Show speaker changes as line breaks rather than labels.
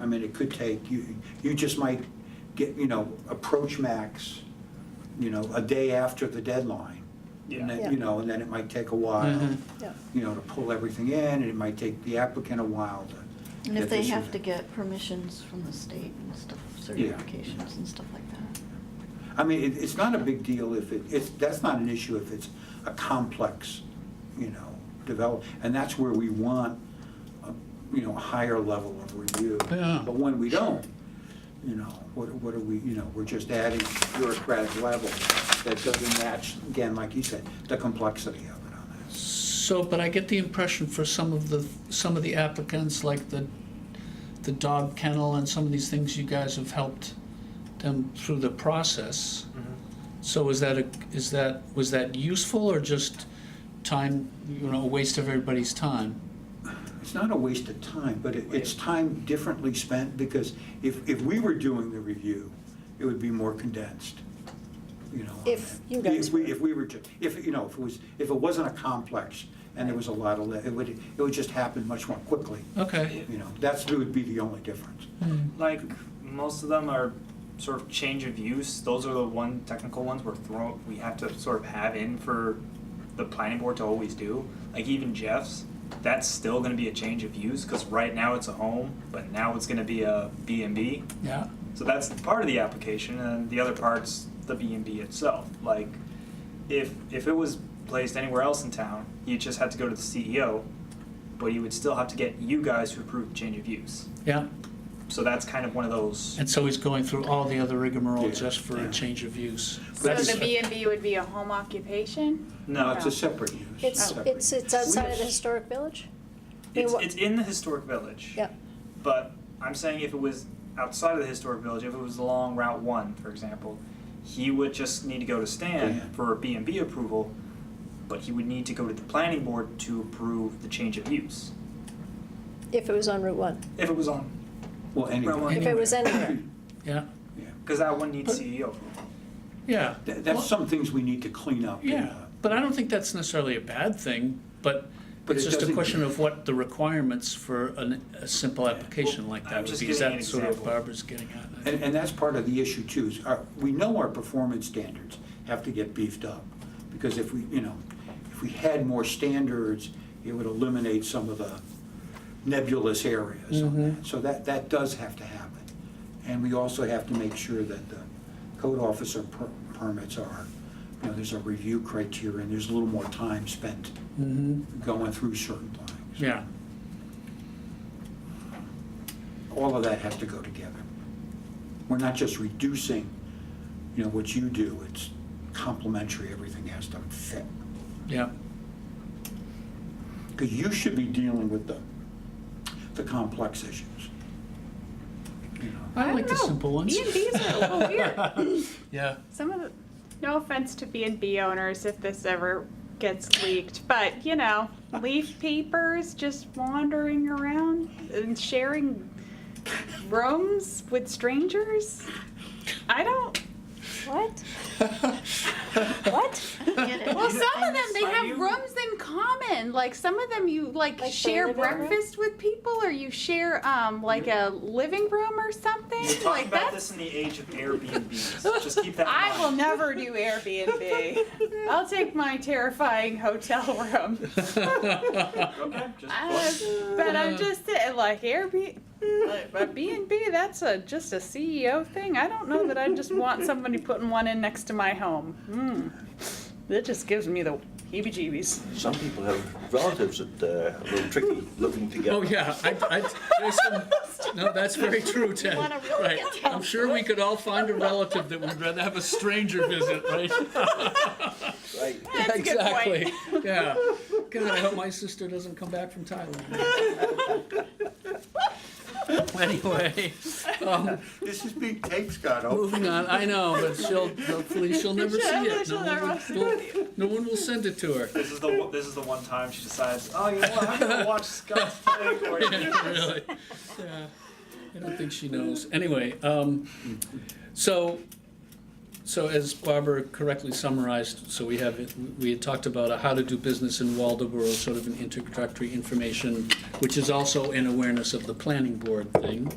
I mean, it could take, you, you just might get, you know, approach max, you know, a day after the deadline.
Yeah.
And
Yeah.
then, you know, and then it might take a while,
Mhm.
Yeah.
you know, to pull everything in, and it might take the applicant a while to.
And if
get
they
this-
have to get permissions from the state and stuff,
Yeah.
certifications and stuff like that.
I mean, it, it's not a big deal if it, it's, that's not an issue if it's a complex, you know, develop, and that's where we want, a, you know, a higher level of review.
Yeah.
But when we don't, you know, what, what are we, you know, we're just adding bureaucratic level that doesn't match, again, like you said, the complexity of it on that.
So, but I get the impression for some of the, some of the applicants, like the, the dog kennel and some of these things, you guys have helped them through the process.
Mm-hmm.
So is that a, is that, was that useful or just time, you know, a waste of everybody's time?
It's not a waste of time, but it, it's time differently spent, because if, if we were doing the review, it would be more condensed, you know. on
If
that.
you guys
If we,
were.
if we were, to- if, you know, if it was, if it wasn't a complex, and there was a lot of, le- it would, it would just happen much more quickly,
Okay.
you know, that's, that would be the only difference.
Like most of them are sort of change of use. Those are the one technical ones we're throw we have to sort of have in for the planning board to always do. Like even Jeff's, that's still going to be a change of use because right now it's a home, but now it's going to be a B and B.
Yeah.
So that's part of the application, and the other part's the B and B itself. Like, if if it was placed anywhere else in town, you just had to go to the CEO, but you would still have to get you guys to approve the change of use.
Yeah.
So that's kind of one of those.
And so he's going through all the other rigmarole
Yeah,
just for
yeah.
a change of use.
So
That's-
the B and B would be a home occupation?
No,
No,
it's a separate use.
It's,
separate.
it's, it's outside of the historic village?
it's,
wha-
it's in the historic village.
Yeah.
But I'm saying if it was outside of the historic village, if it was along Route One, for example, he would just need to go to Stan
Yeah.
for a B and B approval, but he would need to go to the planning board to approve the change of use.
If it was on Route One,
If it was on,
Well, anyway,
Rowan.
if it was anywhere.
Yeah.
yeah.
because that one needs CEO approval.
Yeah.
Th-
Well-
that's some things we need to clean up. uh, you
Yeah,
know.
but I don't think that's necessarily a bad thing, but
But
it's
it
just a
doesn't-
question of what the requirements for an, a simple application like
I'm
that would
just
be. Is
giving
that
an
sort of
example.
Barbara's getting at? I
And,
think.
and that's part of the issue too, is our, we know our performance standards have to get beefed up. Because if we, you know, if we had more standards, it would eliminate some of the nebulous areas on that. So that, that does have to happen. And we also have to make sure that the code officer per- permits are, you know, there's a review criteria and there's a little more time spent going through certain things.
Mm-hmm. Yeah,
all of that has to go together. We're not just reducing, you know, what you do, it's complementary, everything has to fit.
yeah,
Because you should be dealing with the, the complex issues. You know,
I like
don't
the
know.
simple ones.
B and Bs are a little weird.
yeah.
Some of the, no offense to B and B owners if this ever gets leaked, but you know, leaf papers just wandering around and sharing rooms with strangers. I don't.
What?
What?
Get it?
Well, some of them they
Are
have
you-
rooms in common. Like some of them, you
Like
like,
the
share
living room?
breakfast with people, or you share um like a living room or something.
We're talking
like
about
that's.
this in the age of Airbnbs. Just keep that in
I
mind.
will never do Airbnb. I'll take my terrifying hotel room.
Okay, just
Uh, but I'm just saying, like Airbnb, like, but B and B, that's a just a CEO thing. I don't know that I just want somebody putting one in next to my home. Hmm. That just gives me the heebie-jeebies.
Some people have relatives that uh, are a little tricky living together.
Oh, yeah, I, I, there's some, no, that's very true, Ted.
wanna really
Right.
get down
I'm sure we could all find a relative that would rather have a stranger visit, right?
Right.
That's a good point.
Exactly, yeah. God, I hope my sister doesn't come back from Thailand. Anyway, um,
This is being taped, Scott. oh.
Moving on, I know, but she'll, hopefully she'll never see it.
She'll
No one,
never
will, no- no one will send it to her.
This is the one- this is the one time she decides. Oh, you know what? I'm gonna watch Scott's play for you.
Really, yeah, I don't think she knows. Anyway, um, so, so as Barbara correctly summarized, so we have, it- we had talked about a how to do business in Waldoboro, sort of an introductory information, which is also an awareness of the planning board thing.